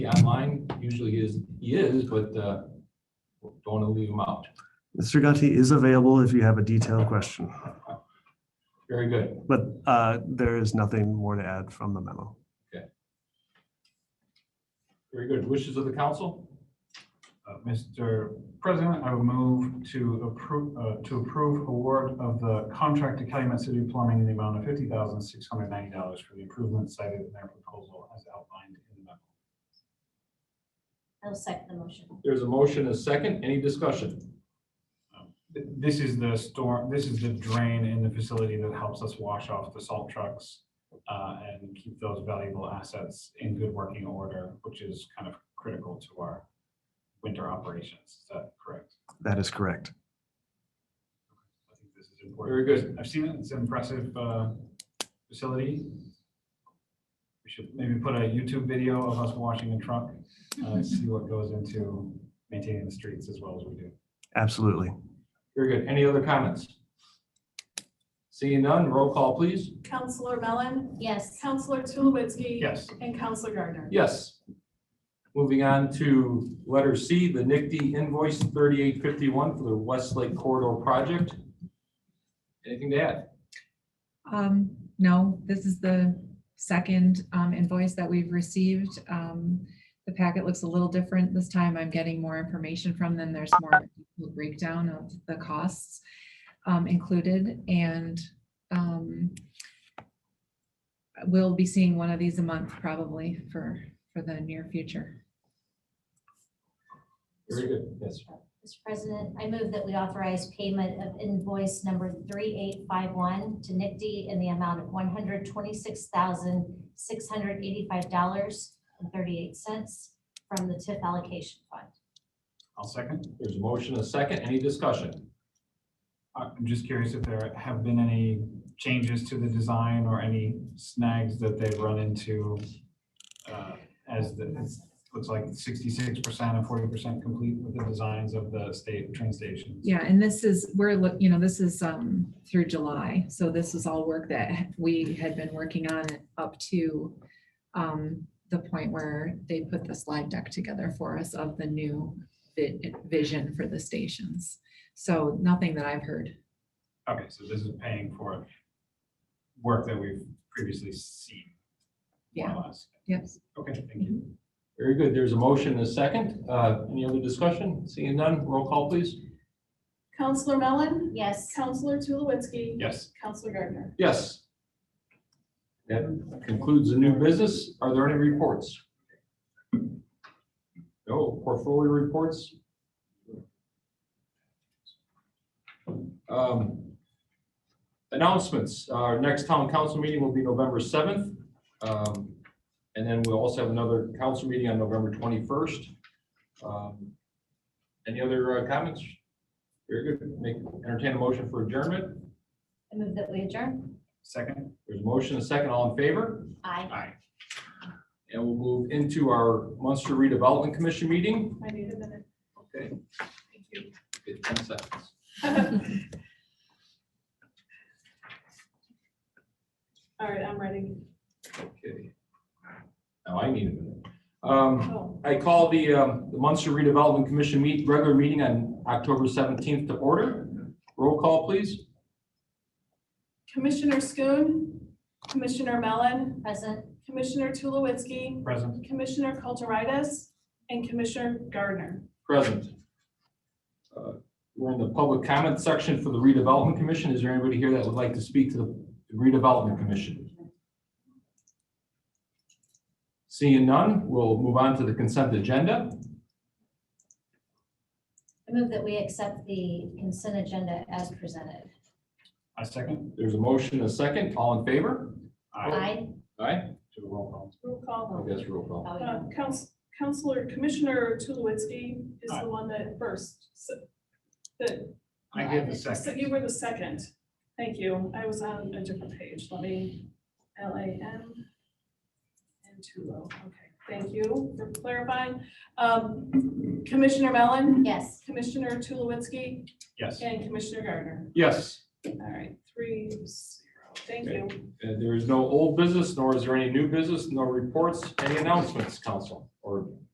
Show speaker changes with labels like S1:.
S1: be online, usually is, he is, but uh, don't want to leave him out.
S2: Mr. Gunty is available if you have a detailed question,
S1: Very good.
S2: but uh, there is nothing more to add from the memo.
S1: Very good. Wishes of the council?
S3: Uh, Mr. President, I would move to approve, uh, to approve award of the contract to Calumet City Plumbing in the amount of fifty thousand six hundred ninety dollars for the improvements cited in their proposal as outlined in the memo.
S4: I'll second the motion.
S1: There's a motion, a second. Any discussion?
S3: Um, th- This is the storm, this is the drain in the facility that helps us wash off the salt trucks uh, and keep those valuable assets in good working order, which is kind of critical to our winter operations. Is that correct?
S2: That is correct.
S3: I think this is
S1: Very
S3: important.
S1: good.
S3: I've seen it. It's an impressive uh, facility. We should maybe put a YouTube video of us washing a truck, uh, see what goes into maintaining the streets as well as we do.
S2: Absolutely.
S1: Very good. Any other comments? Seeing none, roll call, please.
S5: Counselor Mellon,
S4: Yes.
S5: Counselor Tulowitzki.
S3: Yes.
S5: And Counselor Gardner.
S1: Yes. Moving on to letter C, the NICD invoice 3851 for the Westlake Corridor Project. Anything to add?
S6: Um, no, this is the second um, invoice that we've received. Um, the packet looks a little different this time. I'm getting more information from them. There's more of a breakdown of the costs um, included and um, we'll be seeing one of these a month probably for, for the near future.
S1: Very good. Yes.
S4: Mr. President, I move that we authorize payment of invoice number 3851 to NICD in the amount of $126,685.38 from the TIF allocation fund.
S3: I'll second.
S1: There's a motion, a second. Any discussion?
S3: I- I'm just curious if there have been any changes to the design or any snags that they've run into uh, as the, it looks like sixty-six percent and forty percent complete with the designs of the state train stations.
S6: Yeah, and this is, we're, look- you know, this is um, through July. So this is all work that we had been working on up to um, the point where they put the slide deck together for us of the new vi- vision for the stations. So nothing that I've heard.
S3: Okay, so this is paying for work that we've previously seen. more or
S6: Yeah.
S3: less.
S6: Yes.
S3: Okay, thank you.
S1: Very good. There's a motion, a second. Uh, Any other discussion? Seeing none, roll call, please.
S5: Counselor Mellon,
S4: Yes.
S5: Counselor Tulowitzki.
S3: Yes,
S5: Counselor Gardner.
S1: Yes. That concludes the new business. Are there any reports? No portfolio reports? Um, Announcements. Our next town council meeting will be November 7th. Um, And then we'll also have another council meeting on November 21st. Um, Any other uh, comments? Very good. Make, entertain a motion for adjournment.
S4: I move that we adjourn.
S3: second?
S1: There's a motion, a second, all in favor,
S4: Aye.
S3: Aye.
S1: and we'll move into our Munster Redevelopment Commission meeting.
S5: I need a minute.
S1: Okay,
S5: Thank you.
S1: get ten seconds.
S5: All right, I'm ready.
S1: Okay. Now I need a minute. Um,
S5: Oh,
S1: I call the, um, the Munster Redevelopment Commission meet, regular meeting on October seventeenth to order. Roll call, please.
S5: Commissioner Schoon, Commissioner Mellon,
S4: Present.
S5: Commissioner Tulowitzki,
S3: Present?
S5: Commissioner Kulturitis, and Commissioner Gardner.
S1: Present. Uh, We're in the public comment section for the redevelopment commission. Is there anybody here that would like to speak to the redevelopment commission? Seeing none, we'll move on to the consent agenda.
S4: I move that we accept the consent agenda as presented.
S3: I second?
S1: There's a motion, a second. All in favor?
S4: Aye.
S1: Aye.
S3: Do a roll call.
S5: Roll call.
S1: I guess roll call.
S4: Oh, yeah.
S5: Uh, Couns- Counselor, Commissioner Tulowitzki is
S3: Aye.
S5: the one that first, so, that
S3: I give the
S5: So
S3: second.
S5: you were the second. Thank you. I was on a different page. Let me, L A M. And Tulo. Okay, thank you for clarifying. Um, Commissioner Mellon,
S4: Yes.
S5: Commissioner Tulowitzki,
S3: Yes.
S5: and Commissioner Gardner.
S1: Yes.
S5: All right, three zero. Thank you.
S1: Uh, There is no old business, nor is there any new business, no reports, any announcements, council, or